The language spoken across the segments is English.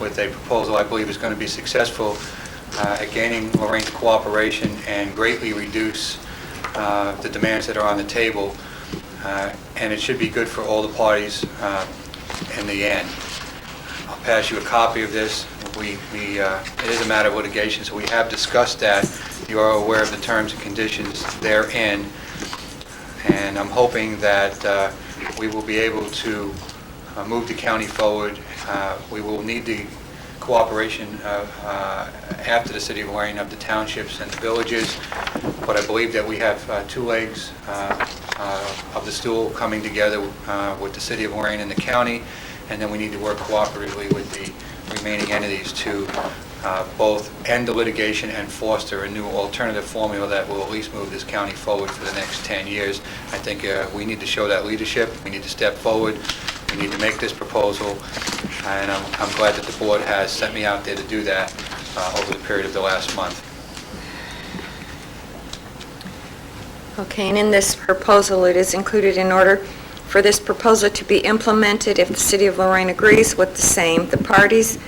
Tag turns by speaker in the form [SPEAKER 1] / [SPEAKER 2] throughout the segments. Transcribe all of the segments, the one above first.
[SPEAKER 1] with a proposal I believe is going to be successful uh, at gaining Lorraine's cooperation and greatly reduce uh, the demands that are on the table. Uh, And it should be good for all the parties uh, in the end. I'll pass you a copy of this. We, we, uh, it is a matter of litigation, so we have discussed that. You are aware of the terms and conditions therein, and I'm hoping that uh, we will be able to uh, move the county forward. Uh, We will need the cooperation of, uh, after the city of Lorraine of the townships and the villages, but I believe that we have uh, two legs uh, uh, of the stool coming together uh, with the city of Lorraine and the county, and then we need to work cooperatively with the remaining entities to uh, both end the litigation and foster a new alternative formula that will at least move this county forward for the next 10 years. I think uh, we need to show that leadership, we need to step forward, we need to make this proposal, and I'm I'm glad that the board has sent me out there to do that uh, over the period of the last month.
[SPEAKER 2] Okay, and in this proposal, it is included in order for this proposal to be implemented if the City of Lorraine agrees with the same. The parties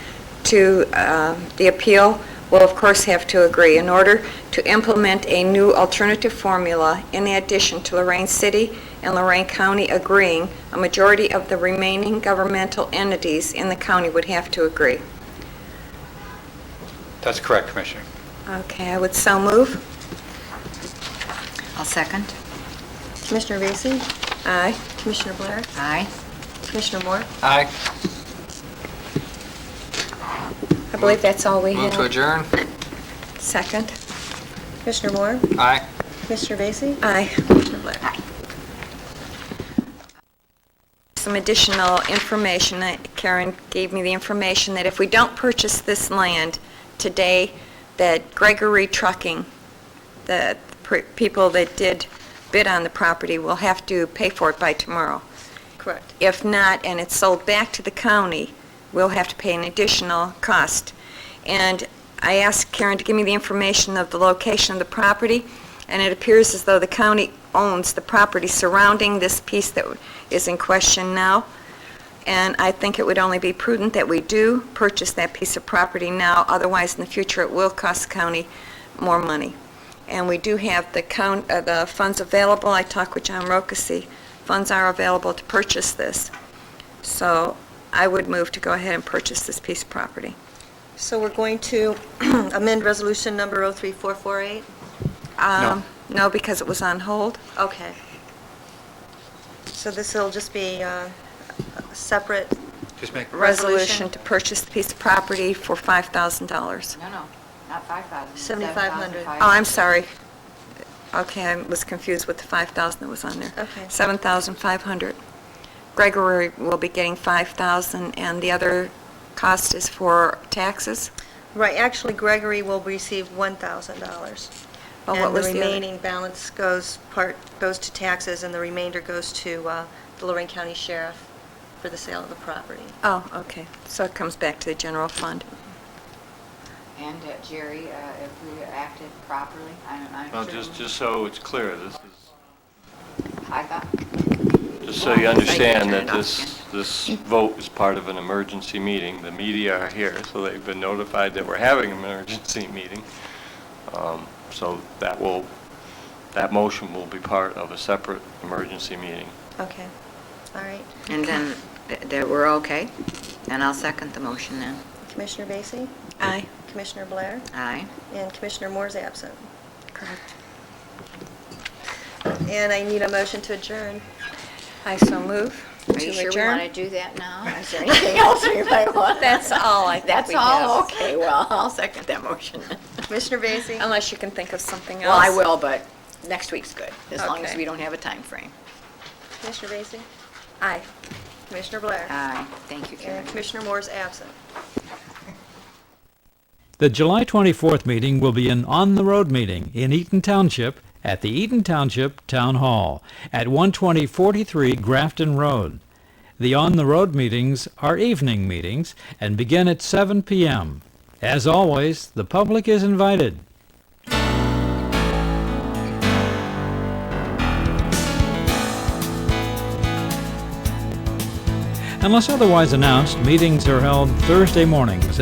[SPEAKER 2] to uh, the appeal will, of course, have to agree. In order to implement a new alternative formula, in addition to Lorraine City and Lorraine County agreeing, a majority of the remaining governmental entities in the county would have to agree.
[SPEAKER 1] That's correct, Commissioner.
[SPEAKER 2] Okay, I would so move.
[SPEAKER 3] I'll second.
[SPEAKER 4] Commissioner Vacy?
[SPEAKER 2] Aye.
[SPEAKER 4] Commissioner Blair?
[SPEAKER 3] Aye.
[SPEAKER 4] Commissioner Moore?
[SPEAKER 5] Aye.
[SPEAKER 2] I believe that's all we
[SPEAKER 5] Move
[SPEAKER 2] have.
[SPEAKER 5] to adjourn.
[SPEAKER 2] Second.
[SPEAKER 4] Commissioner Moore?
[SPEAKER 5] Aye.
[SPEAKER 4] Commissioner Vacy?
[SPEAKER 2] Aye.
[SPEAKER 4] Commissioner Blair?
[SPEAKER 2] some additional information. Uh, Karen gave me the information that if we don't purchase this land today, that Gregory Trucking, the pr- people that did bid on the property, will have to pay for it by tomorrow.
[SPEAKER 4] Correct.
[SPEAKER 2] If not, and it's sold back to the county, we'll have to pay an additional cost. And I asked Karen to give me the information of the location of the property, and it appears as though the county owns the property surrounding this piece that is in question now. And I think it would only be prudent that we do purchase that piece of property now, otherwise in the future it will cost the county more money. And we do have the count, uh, the funds available. I talked with John Rocasi. Funds are available to purchase this. So I would move to go ahead and purchase this piece of property.
[SPEAKER 4] So we're going to amend resolution number 03448?
[SPEAKER 2] Um, No, because it was on hold.
[SPEAKER 4] Okay. So this will just be uh, a separate,
[SPEAKER 1] Just make,
[SPEAKER 2] Resolution
[SPEAKER 4] Resolution.
[SPEAKER 2] to purchase the piece of property for $5,000.
[SPEAKER 3] No, no, not 5,000.
[SPEAKER 4] 7,500.
[SPEAKER 2] Oh, I'm sorry. Okay, I was confused with the 5,000 that was on there.
[SPEAKER 4] Okay.
[SPEAKER 2] 7,500. Gregory will be getting 5,000, and the other cost is for taxes?
[SPEAKER 4] right, actually Gregory will receive $1,000.
[SPEAKER 2] Oh, what was
[SPEAKER 4] And the
[SPEAKER 2] other-
[SPEAKER 4] remaining balance goes, part, goes to taxes, and the remainder goes to uh, the Lorraine County Sheriff for the sale of the property.
[SPEAKER 2] Oh, okay, so it comes back to the general fund.
[SPEAKER 3] And uh, Jerry, uh, if we acted properly, I'm, I'm
[SPEAKER 6] Well,
[SPEAKER 3] sure
[SPEAKER 6] just,
[SPEAKER 3] we-
[SPEAKER 6] just so it's clear, this is,
[SPEAKER 3] I thought,
[SPEAKER 6] just so you
[SPEAKER 3] Well, I can
[SPEAKER 6] understand
[SPEAKER 3] turn
[SPEAKER 6] that
[SPEAKER 3] it off
[SPEAKER 6] this,
[SPEAKER 3] again.
[SPEAKER 6] this vote is part of an emergency meeting. The media are here, so they've been notified that we're having an emergency meeting. Um, So that will, that motion will be part of a separate emergency meeting.
[SPEAKER 4] Okay, all right.
[SPEAKER 3] and then, th- that we're okay? Then I'll second the motion then.
[SPEAKER 4] Commissioner Vacy?
[SPEAKER 2] Aye.
[SPEAKER 4] Commissioner Blair?
[SPEAKER 3] Aye.
[SPEAKER 4] And Commissioner Moore's absent.
[SPEAKER 2] Correct.
[SPEAKER 4] And I need a motion to adjourn.
[SPEAKER 2] I so move
[SPEAKER 3] Are you
[SPEAKER 2] to
[SPEAKER 3] sure we want to
[SPEAKER 2] adjourn.
[SPEAKER 3] do that now? Is there anything else we might want?
[SPEAKER 2] That's all I think
[SPEAKER 3] That's
[SPEAKER 2] we
[SPEAKER 3] all,
[SPEAKER 2] have.
[SPEAKER 3] okay, well, I'll second that motion.
[SPEAKER 4] Commissioner Vacy?
[SPEAKER 2] Unless you can think of something else.
[SPEAKER 3] Well, I will, but next week's good, as long as
[SPEAKER 2] Okay.
[SPEAKER 3] we don't have a time frame.
[SPEAKER 4] Commissioner Vacy?
[SPEAKER 2] Aye.
[SPEAKER 4] Commissioner Blair?
[SPEAKER 3] Aye, thank you, Karen.
[SPEAKER 4] And Commissioner Moore's absent.
[SPEAKER 7] The July 24th meeting will be an on-the-road meeting in Eaton Township at the Eaton Township Town Hall at 12043 Grafton Road. The on-the-road meetings are evening meetings and begin at 7 p.m. As always, the public is invited. Unless otherwise announced, meetings are held Thursday mornings